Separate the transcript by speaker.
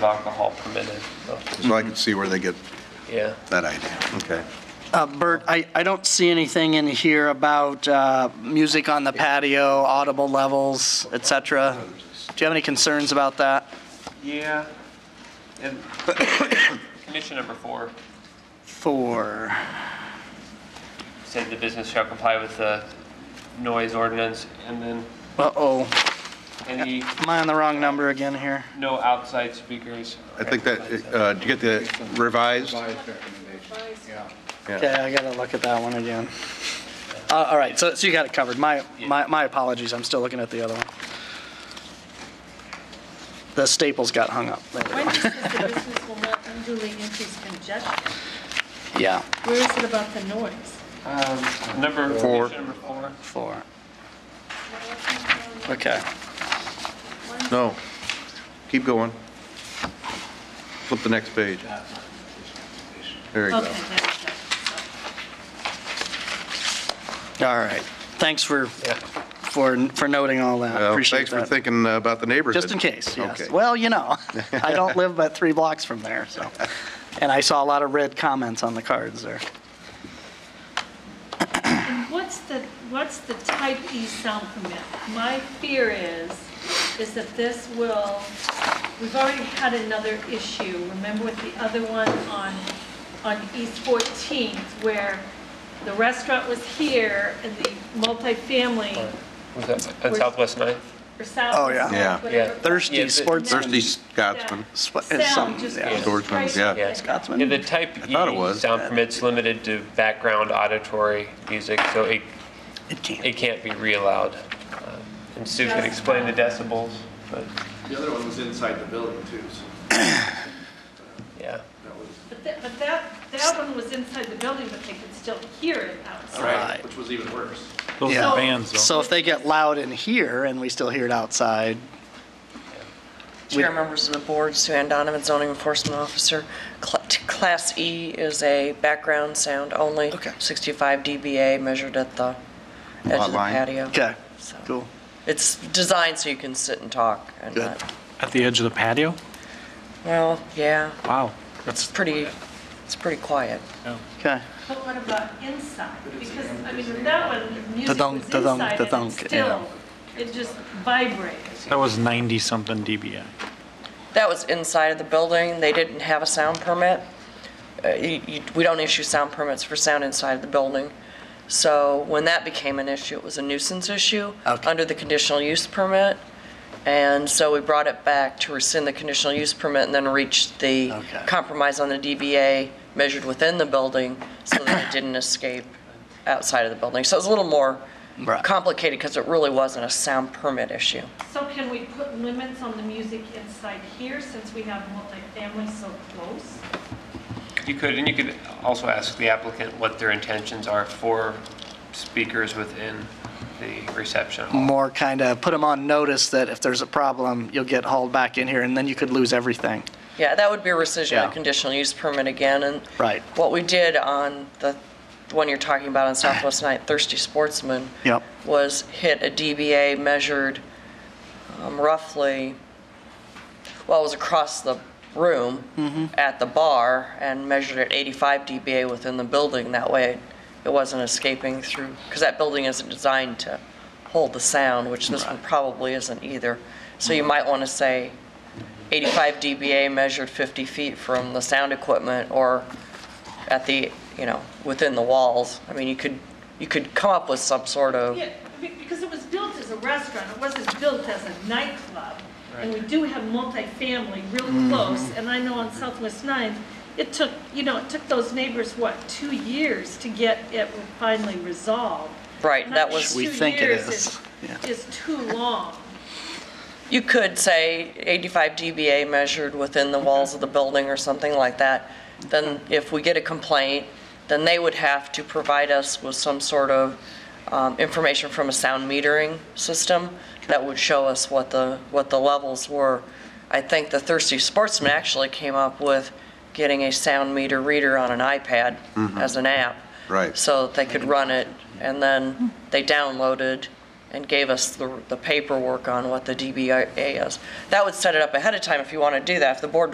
Speaker 1: alcohol permitted, so,
Speaker 2: So I can see where they get
Speaker 1: yeah.
Speaker 2: that idea. Okay.
Speaker 3: Uh, Bert, I, I don't see anything in here about uh, music on the patio, audible levels, et cetera. Do you have any concerns about that?
Speaker 1: Yeah, and condition number four
Speaker 3: Four,
Speaker 1: said the business shall comply with the noise ordinance, and then
Speaker 3: uh-oh,
Speaker 1: any,
Speaker 3: am I on the wrong number again here?
Speaker 1: no outside speakers.
Speaker 2: I think that, uh, did you get the revised?
Speaker 3: Okay, I gotta look at that one again. Uh, All right, so, so you got it covered. My, my, my apologies, I'm still looking at the other one. The staples got hung up. There we
Speaker 4: When
Speaker 3: go.
Speaker 4: it says the business will not unduly increase congestion,
Speaker 3: Yeah,
Speaker 4: where is it about the noise?
Speaker 1: Um, Number,
Speaker 2: Four.
Speaker 1: condition number four,
Speaker 3: four. Okay.
Speaker 2: No. Keep going. Flip the next page. There you
Speaker 4: Okay,
Speaker 2: go.
Speaker 4: there we go.
Speaker 3: All right. Thanks for, for, for noting all that.
Speaker 2: Well,
Speaker 3: Appreciate
Speaker 2: Thanks for
Speaker 3: that.
Speaker 2: thinking uh, about the neighborhood.
Speaker 3: Just in case, yes.
Speaker 2: Okay.
Speaker 3: Well, you know, I don't live but three blocks from there, so. And I saw a lot of red comments on the cards there.
Speaker 4: And what's the, what's the type E sound permit? My fear is, is that this will, we've already had another issue, remember with the other one on, on East 14th, where the restaurant was here and the multifamily
Speaker 1: was that at Southwest Ninth?
Speaker 4: or sound.
Speaker 3: Oh, yeah.
Speaker 2: Yeah.
Speaker 4: whatever.
Speaker 1: Yeah.
Speaker 3: Thirsty
Speaker 1: Yeah, the-
Speaker 3: sports.
Speaker 2: Thirsty Scotsman.
Speaker 3: Sw- some-
Speaker 4: Sound just.
Speaker 3: yeah.
Speaker 4: goes
Speaker 2: Swordsman,
Speaker 4: right
Speaker 2: yeah.
Speaker 4: up
Speaker 1: Yeah.
Speaker 4: and down.
Speaker 1: Yeah,
Speaker 3: Scotsman.
Speaker 1: the type
Speaker 2: Mm-hmm. I thought it
Speaker 1: E
Speaker 2: was.
Speaker 1: sound permits limited to background auditory music, so it,
Speaker 3: It can't.
Speaker 1: it can't be re-allowed. Um, And Sue can explain the decibels, but,
Speaker 5: The other one was inside the building too, so
Speaker 1: yeah.
Speaker 5: that was,
Speaker 4: But that, but that, that one was inside the building, but they could still hear it outside.
Speaker 3: Right.
Speaker 5: which was even worse.
Speaker 6: Those
Speaker 3: Yeah.
Speaker 6: are bands, though.
Speaker 3: So if they get loud in here and we still hear it outside,
Speaker 7: Chair, members of the board, Sue Ann Donovan, zoning enforcement officer. Cl- t- Class E is a background sound only.
Speaker 3: Okay.
Speaker 7: 65 dBA measured at the edge
Speaker 2: Lot
Speaker 7: of the
Speaker 2: line.
Speaker 7: patio.
Speaker 3: okay,
Speaker 7: So
Speaker 3: cool.
Speaker 7: It's designed so you can sit and talk and
Speaker 3: Good.
Speaker 7: not,
Speaker 6: At the edge of the patio?
Speaker 7: well, yeah,
Speaker 6: Wow,
Speaker 7: it's
Speaker 6: that's,
Speaker 7: pretty, it's pretty quiet.
Speaker 3: Okay.
Speaker 4: But what about inside? Because, I mean, with that one, the music
Speaker 3: Da-dunk,
Speaker 4: was
Speaker 3: da-dunk,
Speaker 4: inside and
Speaker 3: da-dunk,
Speaker 4: it's still, it just vibrates.
Speaker 6: that was 90-something dBA.
Speaker 7: That was inside of the building. They didn't have a sound permit. Uh, you- you- We don't issue sound permits for sound inside of the building. So when that became an issue, it was a nuisance issue
Speaker 3: Okay.
Speaker 7: under the conditional use permit. And so we brought it back to rescind the conditional use permit and then reached the
Speaker 3: Okay.
Speaker 7: compromise on the DBA measured within the building so that it didn't escape outside of the building. So it was a little more
Speaker 3: Right.
Speaker 7: complicated because it really wasn't a sound permit issue.
Speaker 4: So can we put limits on the music inside here since we have multifamily so close?
Speaker 1: You could, and you could also ask the applicant what their intentions are for speakers within the reception hall.
Speaker 3: More kind of put them on notice that if there's a problem, you'll get hauled back in here and then you could lose everything.
Speaker 7: Yeah, that would be a rescission
Speaker 3: Yeah.
Speaker 7: of conditional use permit again, and.
Speaker 3: Right.
Speaker 7: What we did on the, the one you're talking about on Southwest Night, Thirsty Sportsman.
Speaker 3: Yep.
Speaker 7: Was hit a DBA measured um, roughly, well, it was across the room.
Speaker 3: Mm-hmm.
Speaker 7: At the bar and measured at 85 DBA within the building. That way it wasn't escaping through, because that building isn't designed to hold the sound, which this one probably isn't either. So
Speaker 3: Mm-hmm.
Speaker 7: you might want to say 85 dBA measured 50 feet from the sound equipment or at the, you know, within the walls. I mean, you could, you could come up with some sort of,
Speaker 4: Yeah, be- because it was built as a restaurant, it wasn't built as a nightclub. And we do have multifamily
Speaker 3: Mm-hmm.
Speaker 4: real close, and I know on Southwest Ninth, it took, you know, it took those neighbors, what, two years to get it finally resolved.
Speaker 7: right,
Speaker 4: I'm
Speaker 7: that
Speaker 4: not
Speaker 7: was,
Speaker 4: sure
Speaker 3: We
Speaker 4: two
Speaker 3: think it
Speaker 4: years
Speaker 3: is, yeah.
Speaker 4: Is too long.
Speaker 7: you could say 85 dBA measured within the walls of the building or something like that. Then if we get a complaint, then they would have to provide us with some sort of um, information from a sound metering system that would show us what the, what the levels were. I think the Thirsty Sportsman actually came up with getting a sound meter reader on an iPad as an app.
Speaker 2: Right.
Speaker 7: So that they could run it, and then they downloaded and gave us the the paperwork on what the DBA is. That would set it up ahead of time if you want to do that, if the board